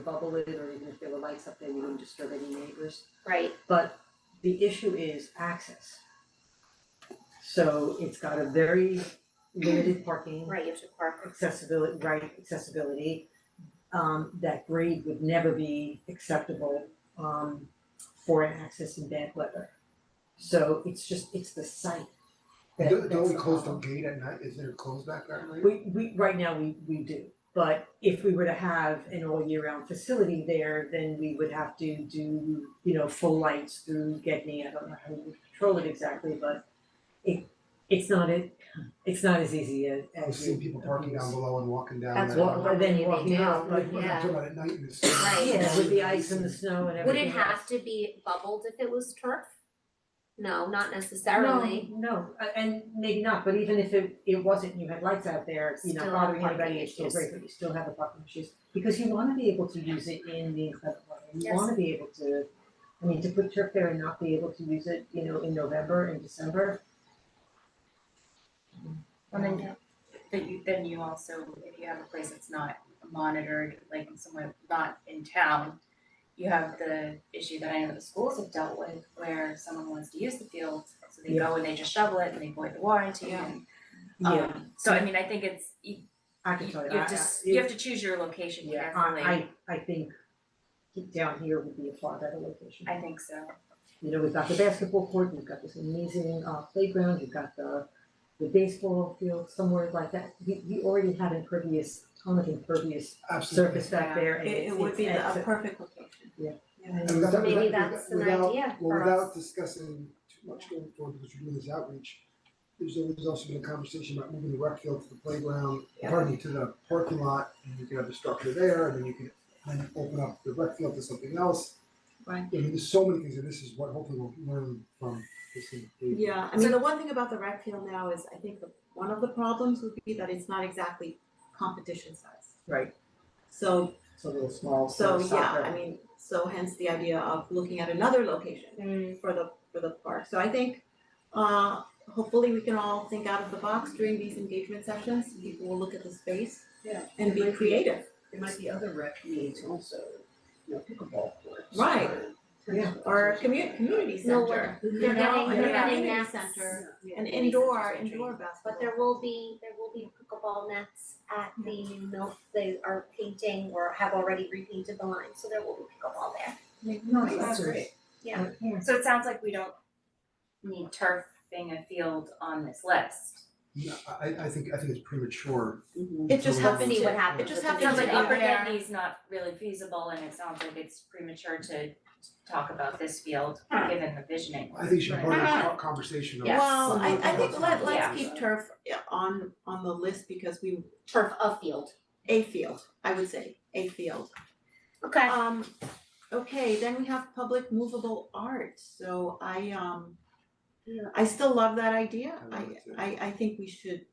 bubble it, or even if there were lights up there, we wouldn't disturb any neighbors. right, But the issue is access. So it's got a very limited parking right, you have to park, accessibility, right, accessibility. Um, that grade would never be acceptable, um, for an access in bad weather. So it's just, it's the site. that- Don't that's don't we the close the problem. gate at night, is there closed back that night? We, we, right now, we, we do, but if we were to have an all year round facility there, then we would have to do, you know, full lights through Getney, I don't know how we would control it exactly, but it, it's not it, it's not as easy as, I've as seen you. people parking down below and walking down That's that what- road. Well, then They walking do, out, Like, like, we're yeah. not talking about at night in the Right. yeah, with the ice and the snow and would it everything else. have to be bubbled if it was turf? No, not necessarily, No, no, a- and maybe not, but even if it it wasn't, and you had lights out there, you know, Still bothering have parking anybody, it's still issues. great, but you still have the parking issues. Because you wanna be able to use it in the inclement weather, you Yes. wanna be able to, I mean, to put turf there and not be able to use it, you know, in November and December. And then, that you, then you also, if you have a place that's not monitored, like somewhere not in town, you have the issue that I know the schools have dealt with, where someone wants to use the field, so they go and they just shovel it and they void the warranty and, Yeah, um, so I mean, I think it's, you, I you can tell you, you I, have to, s- you have to choose your location yeah, carefully, I I I I think down here would be a far better location. think so. you know, we've got the basketball court, we've got this amazing uh playground, you've got the the baseball field somewhere like that. We we already have impervious, ton of impervious Absolutely. surface back there and It it's it would be the- it's- a perfect location. And without- maybe without- that's an without- idea Well, for without us, discussing too much going forward, because we're doing this outreach, there's always also been a conversation about moving the rec field to the playground, pardon me, to the parking lot, and you can have the structure there, and then you can then open up the rec field to something else. Right. I mean, there's so many things, and this is what hopefully we'll learn from this. thing. Yeah, I mean, the one thing about the rec field now is, I think the, one of the problems would be that it's not exactly competition size. Right. So, It's a little small, so so yeah, I mean, so hence the idea of looking at another location for the, for the park. So I think, uh, hopefully we can all think out of the box during these engagement sessions. People will look at the space Yeah. and be creative. There might be other rec needs also, you know, pickleball courts. Right. or- Yeah. Or a commu- community No, center, you they're know, getting, and a they're getting nets. community center, Yeah. an indoor, indoor basketball. But there will be, there will be pickleball nets at the milk, they are painting or have already repainted the line, so there will be pickleball there. No, that's great. Yeah. So it sounds like we don't need turfing a field on this list. No, I I think I think it's premature. Mhm. It just So let's happened See to, what happens it just with the It sounds happens like to pickleball. be Upper there. Denny's not really feasible and it sounds like it's premature to talk about this field, given the visioning. I think it should be part of the conversation of. Yes. Well, I I think let Yeah. let's keep turf yeah, on on the list because we, Turf of field. a field, I would say, a field. Okay. Um, okay, then we have public movable art, so I um Yeah. I still love that idea, I I love it too. I I think we should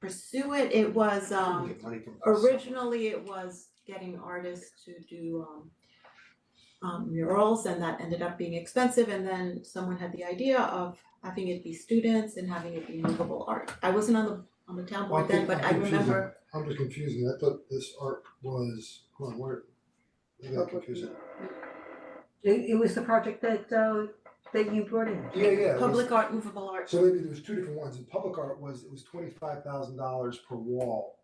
pursue it, it was um Get money from this. originally it was getting artists to do um um murals and that ended up being expensive and then someone had the idea of having it be students and having it be movable art. I wasn't on the on the town Well, board then, think but I I'm confusing. remember, I'm just confusing, I thought this art was, hold on, where? I got confused. It it was the project that uh that you brought in. Yeah, yeah, it was, public art, movable art, so maybe there was two different ones, and public art was, it was twenty-five thousand dollars per wall.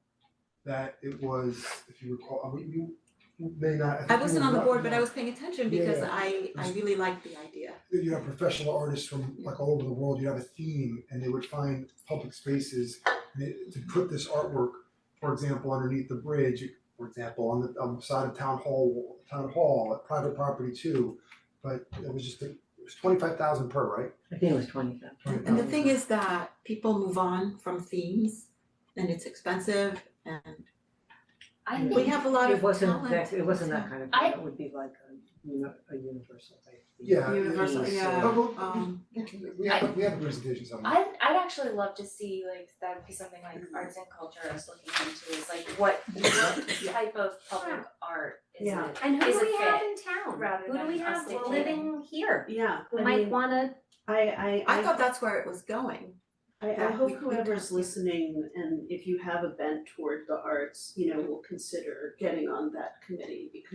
That it was, if you recall, I mean, you you may not, I think I you wasn't were on the not- board, but I was paying attention Yeah, because yeah. I I really liked the idea. You have professional artists from like all over the world, you have a theme, and they would find public spaces and it- to put this artwork, for example, underneath the bridge, for example, on the, on the side of town hall, town hall, at private property too. But it was just, a- it was twenty-five thousand per, right? I think it was twenty thousand. And the thing is that people move on from themes and it's expensive and I we think, have a lot of It wasn't talent. that, it wasn't that kind of thing, I- it would be like a uni- a universal type. thing. Yeah. it- Uh-huh. Universal, it's- yeah. but we'll- Um, we can- We have, we have presentations on that. I'd, I'd actually love to see, like, that would be something like arts and culture is looking into, is like, what, what type of public art is Yeah. it? And who Is do it we have fit in town? rather Who do than we us have dictating? living here? Yeah, Who I might mean, wanna, I I I I thought that's where it was going. I I that hope we- we whoever's talked- listening and if you have a bent toward the arts, you know, will consider getting on that committee because